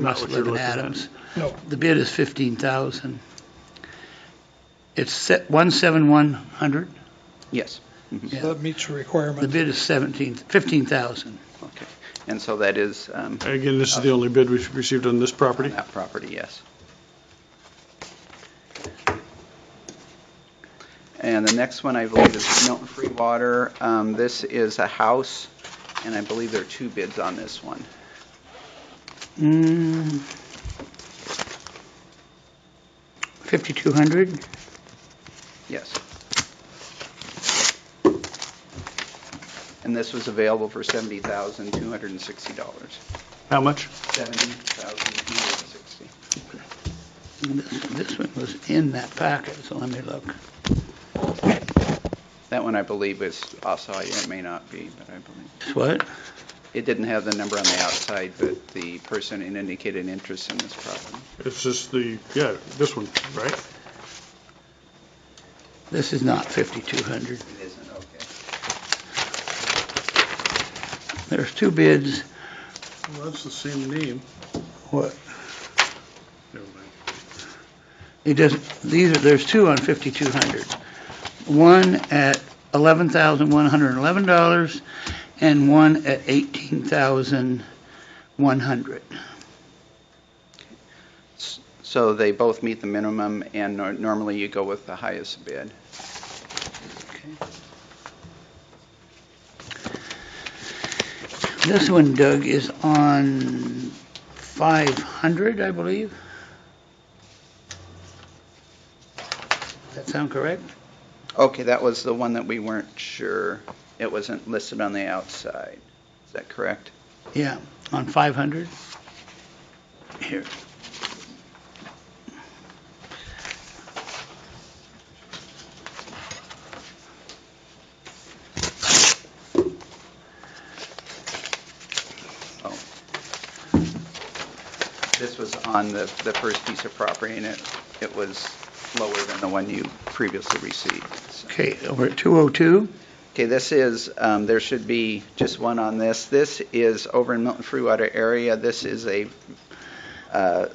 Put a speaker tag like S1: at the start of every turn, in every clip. S1: Not
S2: Must
S1: what
S2: live
S1: you're
S2: in
S1: looking at.
S2: Adams.
S3: No,
S2: The bid is fifteen thousand. It's set one seven one hundred.
S1: Yes. Mhm.
S2: Yeah.
S3: so that meets the
S2: The
S3: requirement.
S2: bid is seventeen, fifteen thousand.
S1: Okay. And so that is um,
S4: Again, this is the only bid we've received on this
S1: on
S4: property.
S1: that property, yes. And the next one, I believe, is Milton Free Water. Um, This is a house, and I believe there are two bids on this one.
S2: Mm. Fifty-two hundred?
S1: Yes. And this was available for $70,260.
S4: How much?
S1: $70,260.
S2: This this one was in that packet, so let me look.
S1: That one, I believe, is also, it may not be, but I believe.
S2: What?
S1: It didn't have the number on the outside, but the person had indicated interest in this property.
S4: It's just the, yeah, this one, right?
S2: This is not fifty-two hundred.
S1: It isn't, okay.
S2: There's two bids.
S4: Well, that's the same name.
S2: What? It doesn't, these are, there's two on 5,200. One at $11,111 and one at $18,100.
S1: So they both meet the minimum, and nor- normally you go with the highest bid.
S2: This one, Doug, is on 500, I believe. That sound correct?
S1: Okay, that was the one that we weren't sure, it wasn't listed on the outside. Is that correct?
S2: Yeah, on 500. Here.
S1: This was on the, the first piece of property, and it, it was lower than the one you previously received. so.
S2: Okay, over at 202.
S1: Okay, this is, um, there should be just one on this. This is over in Milton Freewater area. This is a uh,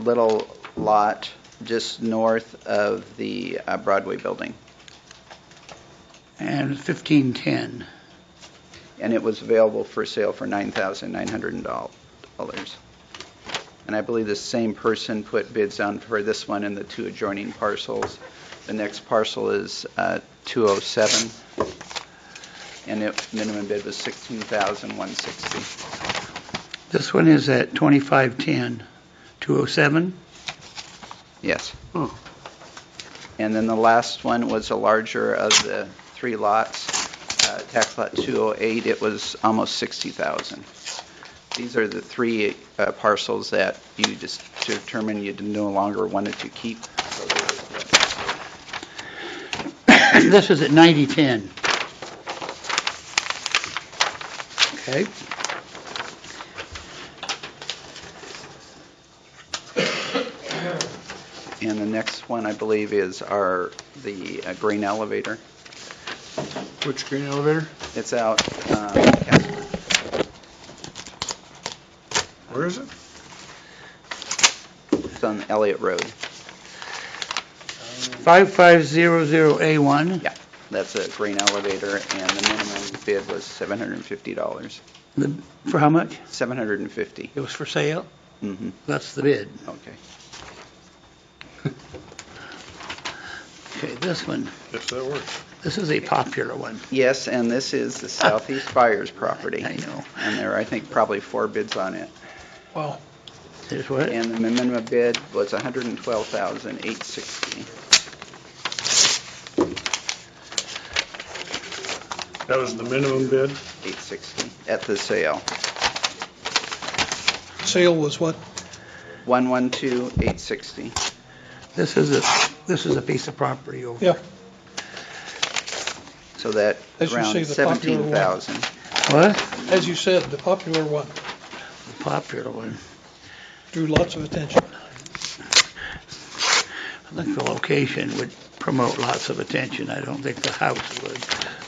S1: little lot just north of the uh, Broadway building.
S2: and 1510.
S1: And it was available for sale for $9,900. And I believe the same person put bids on for this one and the two adjoining parcels. The next parcel is uh, 207, and it, minimum bid was $16,160.
S2: This one is at 2510, 207.
S1: Yes.
S4: Oh.
S1: And then the last one was a larger of the three lots, uh, tax lot 208, it was almost 60,000. These are the three uh, parcels that you just determined you no longer wanted to keep.
S2: This is at 9010. Okay.
S1: And the next one, I believe, is our, the uh, grain elevator.
S4: Which green elevator?
S1: It's out, um, Casper.
S4: Where is it?
S1: it's on Elliott Road.
S2: 5500A1.
S1: That's a grain elevator, and the minimum bid was $750.
S2: The- For how much?
S1: 750.
S2: It was for sale?
S1: Mm-hmm.
S2: That's the bid.
S1: Okay.
S2: Okay, this one,
S4: Yes, that works.
S2: this is a popular one.
S1: Yes, and this is the Southeast Fires property.
S2: I know.
S1: And there are, I think, probably four bids on it.
S3: Wow,
S2: Here's what?
S1: And the minimum bid was $112,860.
S4: That was the minimum bid.
S1: 860 at the sale.
S3: sale was what?
S1: 112,860.
S2: This is a, this is a piece of property over.
S3: Yeah.
S1: So that
S3: As you say,
S1: around
S3: the popular one.
S1: 17,000.
S2: What?
S3: As you said, the popular one
S2: Popular one.
S3: drew lots of attention.
S2: I think the location would promote lots of attention. I don't think the house would.